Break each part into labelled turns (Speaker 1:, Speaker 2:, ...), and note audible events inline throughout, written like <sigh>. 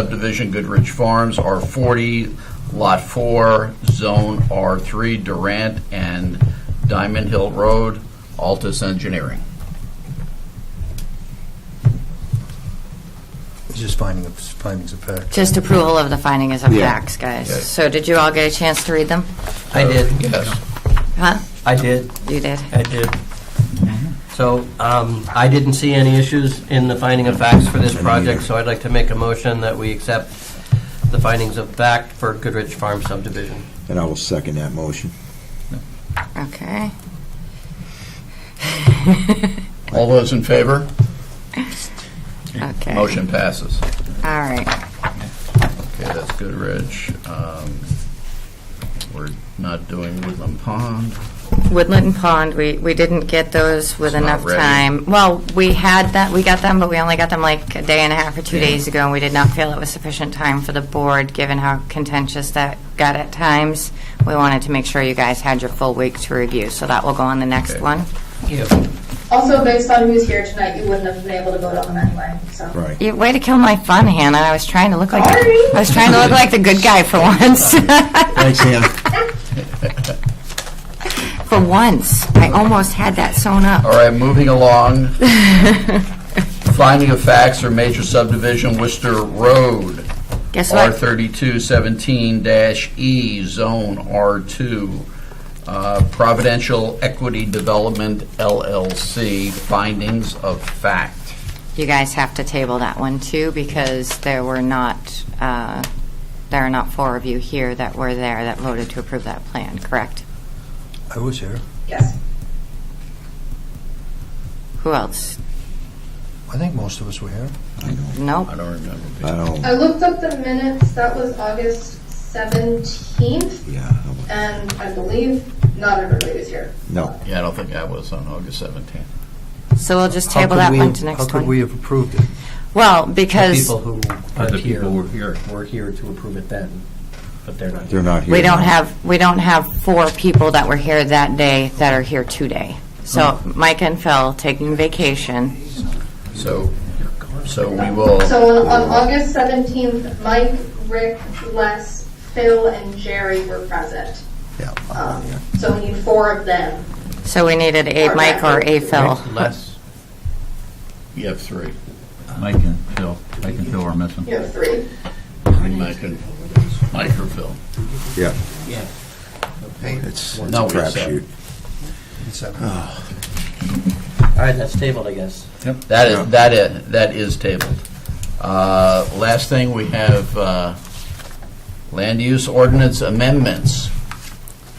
Speaker 1: subdivision, Goodrich Farms, R40, Lot 4, Zone R3, Durant and Diamond Hill Road, Altus Engineering.
Speaker 2: Just finding the findings of fact.
Speaker 3: Just approval of the findings of
Speaker 4: Yeah.
Speaker 3: facts, guys.
Speaker 1: Yeah.
Speaker 3: So did you all get a chance to read them?
Speaker 5: I did,
Speaker 1: Yes.
Speaker 3: Huh?
Speaker 5: I did,
Speaker 3: You did?
Speaker 5: I did. So um, I didn't see any issues in the finding of facts for this project, so I'd like to make a motion that we accept the findings of fact for Goodrich Farm subdivision.
Speaker 4: And I will second that motion.
Speaker 1: <laughs>
Speaker 3: Okay.
Speaker 1: All those in favor?
Speaker 3: Okay.
Speaker 1: Motion passes.
Speaker 3: All right.
Speaker 1: Okay, that's Goodrich. Um, We're not doing Woodland Pond.
Speaker 3: Woodland and Pond, we, we didn't get those with
Speaker 1: It's not
Speaker 3: enough
Speaker 1: ready.
Speaker 3: time. Well, we had that, we got them, but we only got them like a day and a half or two
Speaker 1: Yeah.
Speaker 3: days ago, and we did not feel it was sufficient time for the board, given how contentious that got at times. We wanted to make sure you guys had your full week to review, so that will go on the next
Speaker 1: Okay.
Speaker 3: one.
Speaker 6: Also, based on who's here tonight, you wouldn't have been able to vote on them anyway, so.
Speaker 4: Right.
Speaker 3: You, way to kill my fun, Hannah. I was trying to look like
Speaker 6: Sorry.
Speaker 3: I was trying to look like the good guy for once.
Speaker 4: Thanks, Hannah.
Speaker 3: <laughs> for once, I almost had that sewn
Speaker 1: All
Speaker 3: up.
Speaker 1: right, moving along. Finding of facts for major subdivision, Worcester Road.
Speaker 3: Guess
Speaker 1: R
Speaker 3: what?
Speaker 1: thirty-two seventeen E, Zone R two, uh, Providential Equity Development LLC, findings of fact.
Speaker 3: You guys have to table that one too because there were not uh, there are not four of you here that were there that voted to approve that plan. Correct?
Speaker 2: I was here.
Speaker 6: Yes.
Speaker 3: Who else?
Speaker 2: I think most of us were here.
Speaker 3: Nope.
Speaker 1: I don't remember.
Speaker 4: I don't,
Speaker 6: I looked up the minutes, that was August 17th,
Speaker 4: yeah, I don't-
Speaker 6: and I believe not everybody was here.
Speaker 4: no.
Speaker 1: Yeah, I don't think I was on August seventeenth.
Speaker 3: So we'll just
Speaker 2: How
Speaker 3: table
Speaker 2: could
Speaker 3: that
Speaker 2: we-
Speaker 3: one to next
Speaker 2: How could
Speaker 3: one.
Speaker 2: we have approved it?
Speaker 3: well,
Speaker 5: The
Speaker 3: because
Speaker 5: people who are
Speaker 1: The
Speaker 5: here
Speaker 1: people who
Speaker 5: were here, were here to approve it then, but they're not here.
Speaker 4: They're not here.
Speaker 3: we don't
Speaker 4: now.
Speaker 3: have we don't have four people that were here that day that are here today. So Mike and Phil taking vacation.
Speaker 1: So, so we will,
Speaker 6: So on, on August 17th, Mike, Rick, Les, Phil, and Jerry were present.
Speaker 4: Yeah,
Speaker 6: Um, So we need four of them.
Speaker 3: So we needed a Mike or a Phil.
Speaker 5: Less,
Speaker 1: you have three.
Speaker 7: Mike and Phil, Mike and Phil are missing.
Speaker 6: You have three.
Speaker 1: Mike and Mike or Phil.
Speaker 4: yeah.
Speaker 5: Yeah.
Speaker 4: It's it's a
Speaker 1: No, we accept.
Speaker 4: crapshoot.
Speaker 2: It's that-
Speaker 5: all right, that's tabled, I guess.
Speaker 1: That
Speaker 4: Yeah.
Speaker 1: is, that is, that is tabled. Uh, Last thing, we have uh, land use ordinance amendments.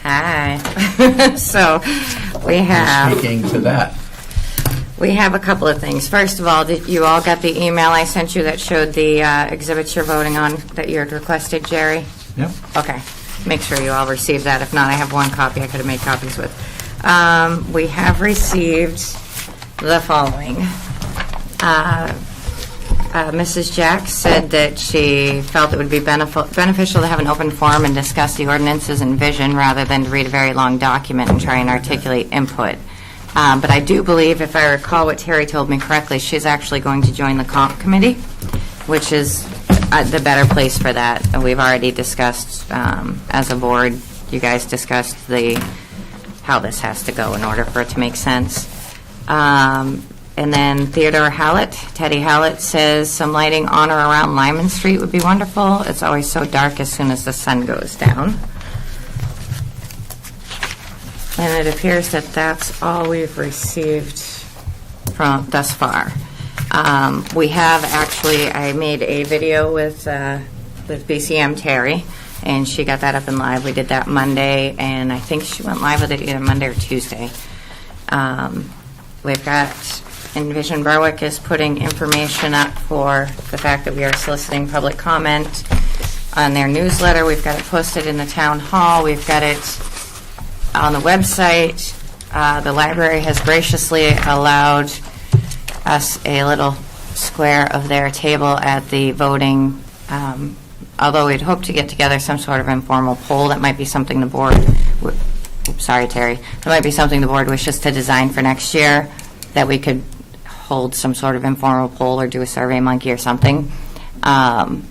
Speaker 3: Hi. <laughs> so we have
Speaker 1: Speaking to that.
Speaker 3: we have a couple of things. First of all, did you all got the email I sent you that showed the uh, exhibits you're voting on that you had requested, Jerry?
Speaker 7: Yep.
Speaker 3: Okay. Make sure you all received that. If not, I have one copy I could have made copies with. Um, we have received the following. Uh, uh, Mrs. Jack said that she felt it would be benefi- beneficial to have an open forum and discuss the ordinances and vision rather than to read a very long document and try and articulate input. Um, But I do believe, if I recall what Terry told me correctly, she's actually going to join the comp committee, which is uh, the better place for that. And We've already discussed, um, as a board, you guys discussed the, how this has to go in order for it to make sense. Um, And then Theodore Hallett, Teddy Hallett says, "Some lighting on or around Lyman Street would be wonderful. It's always so dark as soon as the sun goes down." And it appears that that's all we've received from, thus far. Um, We have, actually, I made a video with, uh, with BCM Terry, and she got that up and live. We did that Monday, and I think she went live with it either Monday or Tuesday. Um, We've got Envision Berwick is putting information up for the fact that we are soliciting public comment on their newsletter. We've got it posted in the town hall. We've got it on the website. Uh, The library has graciously allowed us a little square of their table at the voting, um, although we'd hoped to get together some sort of informal poll. That might be something the board, w- oops, sorry, Terry, that might be something the board wishes to design for next year, that we could hold some sort of informal poll or do a survey monkey or something. Um,